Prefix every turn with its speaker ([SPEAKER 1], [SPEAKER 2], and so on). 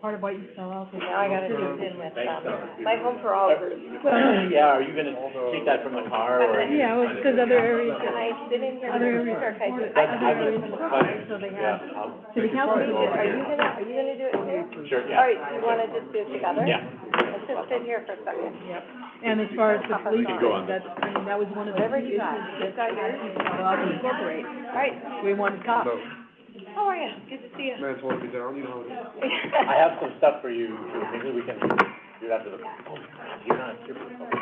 [SPEAKER 1] part of what you sell out.
[SPEAKER 2] Now I gotta do in with,
[SPEAKER 3] Thanks,
[SPEAKER 2] um,
[SPEAKER 3] Dr.
[SPEAKER 2] my home for all group.
[SPEAKER 3] Yeah, are you gonna take that from the car or? are you-
[SPEAKER 1] Yeah, well, it's 'cause other areas-
[SPEAKER 2] I didn't hear
[SPEAKER 1] Other
[SPEAKER 2] the
[SPEAKER 1] areas
[SPEAKER 2] research, I just,
[SPEAKER 1] I-
[SPEAKER 2] I
[SPEAKER 3] That's,
[SPEAKER 1] other
[SPEAKER 3] I was,
[SPEAKER 1] areas of the property, so they
[SPEAKER 3] yeah,
[SPEAKER 1] have
[SPEAKER 2] um,
[SPEAKER 3] I'll.
[SPEAKER 1] city council
[SPEAKER 2] Are you
[SPEAKER 1] meetings.
[SPEAKER 2] gonna, are you gonna do it here?
[SPEAKER 3] Sure,
[SPEAKER 2] All
[SPEAKER 3] yeah,
[SPEAKER 2] right, so you wanna just do it together?
[SPEAKER 3] yeah.
[SPEAKER 2] Let's just sit here for a second.
[SPEAKER 1] And as far as the police,
[SPEAKER 2] We could go
[SPEAKER 3] on
[SPEAKER 1] that's, I mean, that was one of the
[SPEAKER 2] Whatever
[SPEAKER 1] uses
[SPEAKER 2] you got,
[SPEAKER 1] that
[SPEAKER 2] you've got yours.
[SPEAKER 1] people allowed to incorporate.
[SPEAKER 2] All right,
[SPEAKER 1] We wanted cops.
[SPEAKER 2] how are you? Good to see you.
[SPEAKER 4] Might as well be down, you know.
[SPEAKER 3] I
[SPEAKER 4] how
[SPEAKER 3] have some stuff for you, too. maybe we can do it after the, oh, you're not here for the public.